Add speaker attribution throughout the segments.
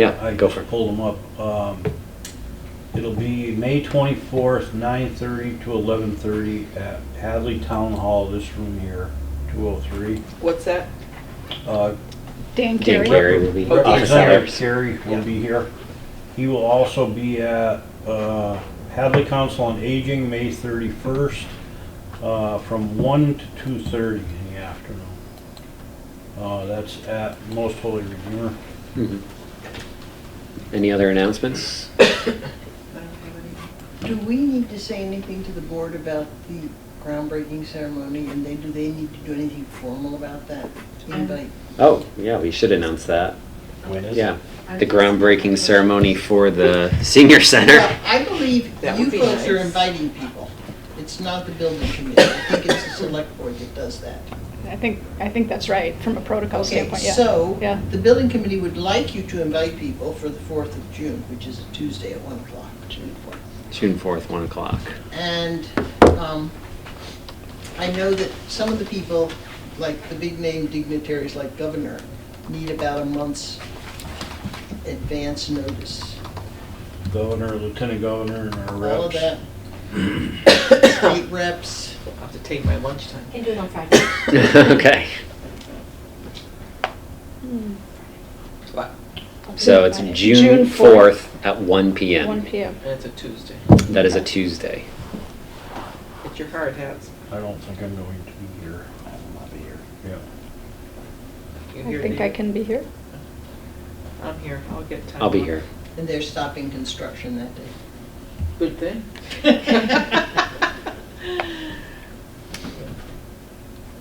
Speaker 1: Yeah,
Speaker 2: I
Speaker 1: go for
Speaker 2: just
Speaker 1: it.
Speaker 2: pulled them up. Um, It'll be May 24th, 9:30 to 11:30 at Hadley Town Hall, this room here, 203.
Speaker 3: What's that?
Speaker 2: Uh,
Speaker 1: Dan
Speaker 4: Dan Carey.
Speaker 1: Carey will be
Speaker 3: Okay.
Speaker 1: office
Speaker 2: Representative
Speaker 1: hours.
Speaker 2: Oh, Carey will
Speaker 3: Yeah.
Speaker 2: be here. He will also be at uh, Hadley Council on Aging, May 31st, uh, from 1 to 2:30 in the afternoon. Uh, That's at Most Holy Redeemer.
Speaker 1: Mhm. Mm-hmm. Any other announcements?
Speaker 5: Do we need to say anything to the board about the groundbreaking ceremony, and then do they need to do anything formal about that? Invite?
Speaker 1: Oh, yeah, we should announce that.
Speaker 2: When is it?
Speaker 1: Yeah, the groundbreaking ceremony for the senior center.
Speaker 5: Well, I believe
Speaker 3: That
Speaker 5: you
Speaker 3: would be
Speaker 5: folks are
Speaker 3: nice.
Speaker 5: inviting people. It's not the building committee. I think it's the select board that does that.
Speaker 4: I think, I think that's right, from a protocol
Speaker 5: Okay,
Speaker 4: standpoint, yeah.
Speaker 5: so,
Speaker 4: Yeah,
Speaker 5: the building committee would like you to invite people for the 4th of June, which is a Tuesday at 1 o'clock, June 4th.
Speaker 1: June 4th, 1 o'clock.
Speaker 5: And um, I know that some of the people, like the big name dignitaries like governor, need about a month's advance notice.
Speaker 2: Governor, Lieutenant Governor, and our reps.
Speaker 5: All of that. State reps.
Speaker 3: I'll have to take my lunchtime.
Speaker 6: Can do it on Friday.
Speaker 1: Okay,
Speaker 3: What?
Speaker 1: so it's June 4th at 1
Speaker 4: 1
Speaker 1: PM.
Speaker 4: PM.
Speaker 3: And it's a Tuesday.
Speaker 1: That is a Tuesday.
Speaker 3: Get your hard hats.
Speaker 2: I don't think I'm going to be here. I will not be here. Yeah.
Speaker 3: You
Speaker 4: I
Speaker 3: here,
Speaker 4: think
Speaker 3: Dave?
Speaker 4: I can be here.
Speaker 3: I'm here. I'll get time.
Speaker 1: I'll be
Speaker 3: off.
Speaker 1: here.
Speaker 5: And they're stopping construction that day.
Speaker 3: Good thing.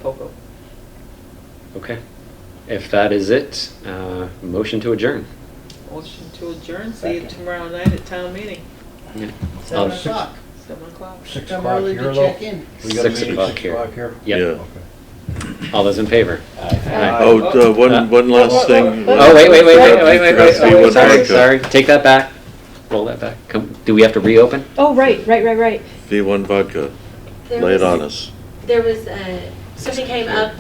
Speaker 3: Poco.
Speaker 1: Okay. If that is it, uh, motion to adjourn.
Speaker 3: Motion to adjourn. See you tomorrow night at town meeting,
Speaker 1: Yeah.
Speaker 5: Seven
Speaker 1: Um,
Speaker 5: o'clock.
Speaker 3: seven o'clock.
Speaker 2: Six
Speaker 5: Come
Speaker 2: o'clock
Speaker 5: early
Speaker 2: here,
Speaker 5: to
Speaker 2: though?
Speaker 5: check in.
Speaker 2: We got a
Speaker 1: Six
Speaker 2: meeting
Speaker 1: o'clock
Speaker 2: six
Speaker 1: here.
Speaker 2: o'clock here?
Speaker 1: Yeah,
Speaker 2: Okay.
Speaker 1: all those in favor?
Speaker 3: Aye.
Speaker 7: Oh, uh, one, one last thing.
Speaker 1: Oh, wait, wait, wait, wait, wait, wait, wait,
Speaker 7: Trustee
Speaker 1: sorry, sorry,
Speaker 7: Woodward,
Speaker 1: sorry, take that back, roll that back, come, do we have to reopen?
Speaker 4: Oh, right, right, right, right.
Speaker 7: V1 vodka,
Speaker 6: There
Speaker 7: lay it
Speaker 6: was-
Speaker 7: on us.
Speaker 6: There was, uh, something came up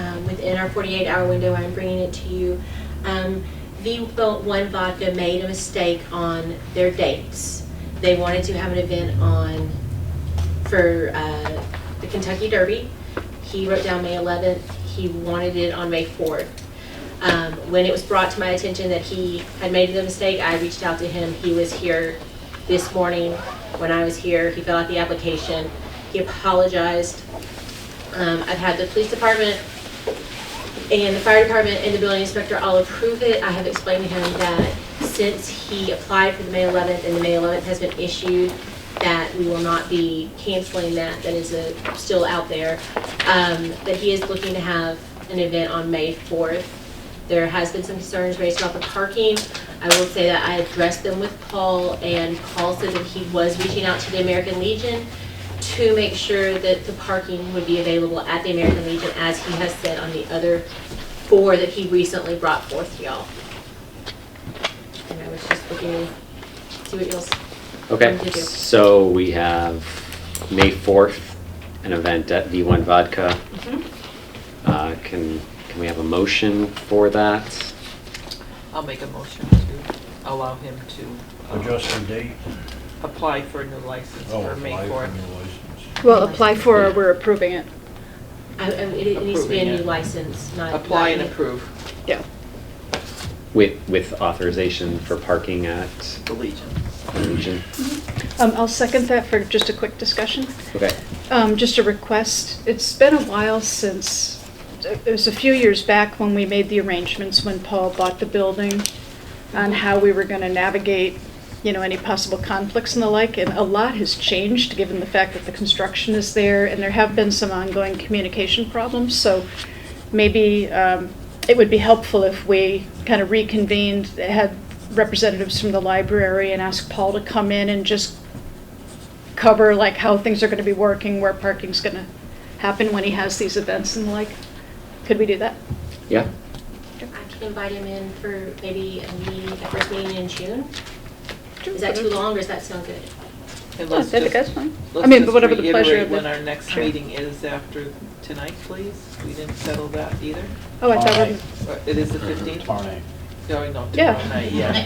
Speaker 6: um, within our 48-hour window. I'm bringing it to you. Um, The One Vodka made a mistake on their dates. They wanted to have an event on, for uh, the Kentucky Derby. He wrote down May 11th. He wanted it on May 4th. Um, When it was brought to my attention that he had made the mistake, I reached out to him. He was here this morning when I was here. He filled out the application. He apologized. Um, I've had the police department and the fire department and the building inspector all approve it. I have explained to him that since he applied for the May 11th and the May 11th has been issued, that we will not be canceling that, that is uh, still out there. Um, That he is looking to have an event on May 4th. There has been some concerns raised about the parking. I will say that I addressed them with Paul, and Paul said that he was reaching out to the American Legion to make sure that the parking would be available at the American Legion, as he has said on the other four that he recently brought forth to y'all. And I was just looking, to see what y'all's.
Speaker 1: Okay,
Speaker 6: Thank you.
Speaker 1: so we have May 4th, an event at V1 Vodka. Uh, Can, can we have a motion for that?
Speaker 3: I'll make a motion to allow him to uh,
Speaker 2: Adjust the date.
Speaker 3: apply for a new license
Speaker 2: Oh,
Speaker 3: for May
Speaker 2: apply for
Speaker 3: 4th.
Speaker 2: new license.
Speaker 4: Well, apply for, or we're approving it.
Speaker 6: I- I- It it needs to be a
Speaker 3: Approving
Speaker 6: new
Speaker 3: it.
Speaker 6: license, not.
Speaker 3: Apply and
Speaker 6: not-
Speaker 3: approve
Speaker 4: Yeah.
Speaker 1: With, with authorization for parking at
Speaker 3: the Legion.
Speaker 1: the Legion?
Speaker 4: Um, I'll second that for just a quick discussion.
Speaker 1: Okay,
Speaker 4: Um, just a request, it's been a while since, it was a few years back when we made the arrangements when Paul bought the building on how we were gonna navigate, you know, any possible conflicts and the like, and a lot has changed, given the fact that the construction is there, and there have been some ongoing communication problems, so maybe, um, it would be helpful if we kind of reconvened, had representatives from the library and asked Paul to come in and just cover like how things are going to be working, where parking's going to happen when he has these events and the like. Could we do that?
Speaker 1: yeah,
Speaker 6: I can invite him in for maybe a meeting, the first meeting in June. Is that too long or does that sound good?
Speaker 3: And
Speaker 4: Yeah, I
Speaker 3: let's
Speaker 4: think
Speaker 3: just-
Speaker 4: that's fine. I
Speaker 3: let's
Speaker 4: mean,
Speaker 3: just
Speaker 4: but whatever the pleasure
Speaker 3: reiterate
Speaker 4: of the.
Speaker 3: When our next
Speaker 4: Sure.
Speaker 3: meeting is after tonight, please. We didn't settle that either.
Speaker 4: Oh, I thought, we-
Speaker 3: Or It is the 15th.
Speaker 2: Tomorrow night.
Speaker 3: No, no,
Speaker 4: Yeah.
Speaker 3: tomorrow night, yeah.